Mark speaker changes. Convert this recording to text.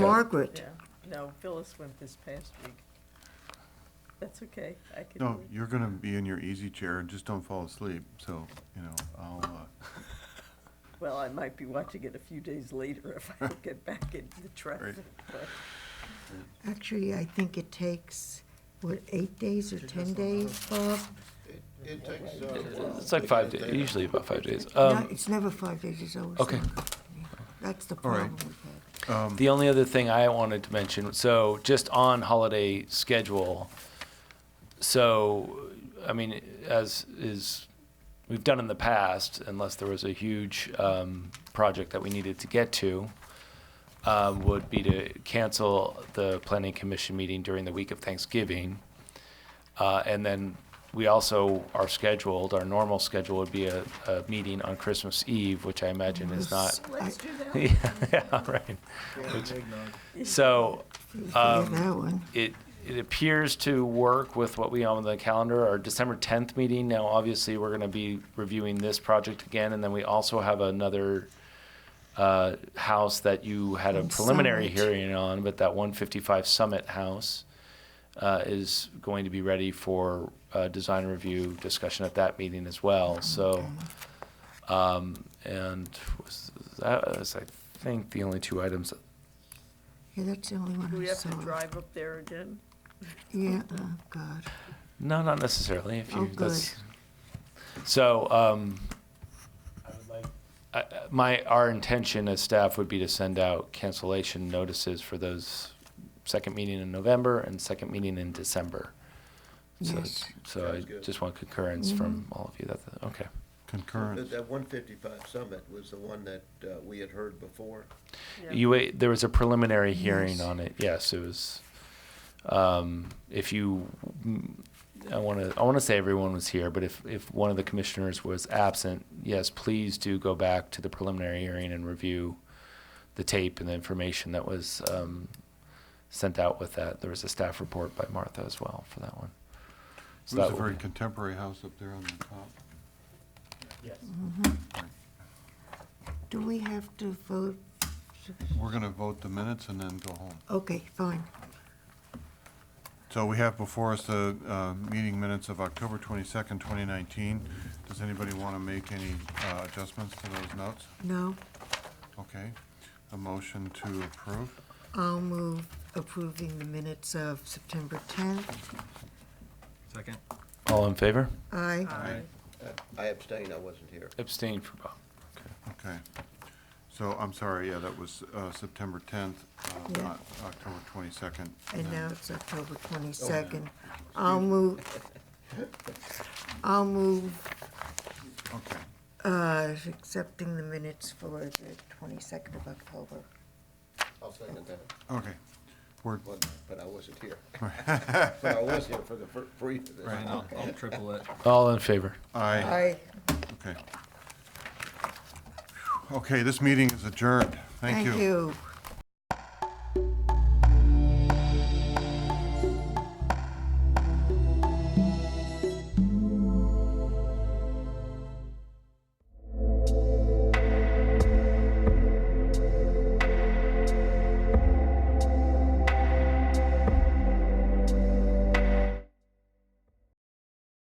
Speaker 1: Margaret.
Speaker 2: Yeah, no, Phyllis went this past week. That's okay, I can
Speaker 3: No,
Speaker 2: do
Speaker 3: you're gonna be in your easy chair and just don't fall asleep, so, you know, I'll, uh,
Speaker 2: it. Well, I might be watching it a few days later if I don't get back into the traffic. but-
Speaker 1: Actually, I think it takes, what, eight days or 10 days, Bob?
Speaker 4: It takes, uh,
Speaker 5: It's like five days, usually about five days.
Speaker 1: No,
Speaker 5: Um,
Speaker 1: it's never five days, it's always.
Speaker 5: okay.
Speaker 1: seven. Yeah, That's the
Speaker 3: right.
Speaker 1: problem we've had.
Speaker 5: Um, The only other thing I wanted to mention, so just on holiday schedule, so, I mean, as is, we've done in the past, unless there was a huge um, project that we needed to get to, um, would be to cancel the planning commission meeting during the week of Thanksgiving. Uh, And then we also are scheduled, our normal schedule would be a, a meeting on Christmas Eve, which I imagine is not.
Speaker 2: Let's do that.
Speaker 5: Yeah, yeah, right. So
Speaker 1: Yeah,
Speaker 5: Um,
Speaker 1: that one.
Speaker 5: it, it appears to work with what we have on the calendar, our December 10th meeting. Now, obviously, we're going to be reviewing this project again, and then we also have another uh, house that you had a
Speaker 1: And
Speaker 5: preliminary
Speaker 1: Summit.
Speaker 5: hearing on, but that 155 Summit House uh, is going to be ready for uh, design review discussion at that meeting as well. So, um, and was that was, I think, the only two items
Speaker 1: Yeah, that's the only
Speaker 2: Do
Speaker 1: one
Speaker 2: we
Speaker 1: I
Speaker 2: have to
Speaker 1: saw.
Speaker 2: drive up there again?
Speaker 1: Yeah, oh, God.
Speaker 5: No, not necessarily. If you,
Speaker 1: Oh, good.
Speaker 5: that's, so, um, I would like- I- I- my, our intention as staff would be to send out cancellation notices for those second meeting in November and second meeting in December. So-
Speaker 1: Yes.
Speaker 5: So I
Speaker 4: Sounds good.
Speaker 5: just want
Speaker 1: Mm-hmm.
Speaker 5: concurrence from all of you that, okay.
Speaker 3: concurrent.
Speaker 5: Um,
Speaker 4: that one fifty-five summit was the one that uh, we had heard before.
Speaker 2: Yeah.
Speaker 5: You, wait- there was a preliminary hearing
Speaker 1: Yes.
Speaker 5: on it, yes, it was, um, if you, mm, I wanna, I wanna say everyone was here, but if, if one of the commissioners was absent, yes, please do go back to the preliminary hearing and review the tape and the information that was, um, sent out with that. There was a staff report by Martha as well for that one.
Speaker 3: It
Speaker 5: So
Speaker 3: was a
Speaker 5: that
Speaker 3: very
Speaker 5: would be-
Speaker 3: contemporary house up there on the top.
Speaker 1: Do we have to vote?
Speaker 3: We're gonna vote the minutes and then go home.
Speaker 1: Okay, fine.
Speaker 3: So we have before us the, uh, meeting minutes of October twenty-second, twenty nineteen. Does anybody wanna make any, uh, adjustments to those notes?
Speaker 1: No,
Speaker 3: Okay, a motion to approve?
Speaker 1: I'll move approving the minutes of September 10th.
Speaker 6: Second.
Speaker 5: All in favor?
Speaker 1: Aye.
Speaker 3: Aye.
Speaker 4: Uh, I abstain, I wasn't here.
Speaker 5: Abstain for Bob.
Speaker 3: Okay. So, I'm sorry, yeah, that was, uh, September tenth, uh,
Speaker 1: Yeah.
Speaker 3: not October twenty-second.
Speaker 1: And now it's October 22nd. I'll move, I'll move
Speaker 3: Okay,
Speaker 1: uh, accepting the minutes for the 22nd of October.
Speaker 4: I'll second that,
Speaker 3: okay. We're,
Speaker 4: one, but I wasn't here. But I was here for the fir- free. for this.
Speaker 6: Brian, I'll, I'll triple it.
Speaker 5: All in favor?
Speaker 3: aye.
Speaker 1: Aye.
Speaker 3: Okay. Okay, this meeting is adjourned. Thank you.
Speaker 1: Thank you.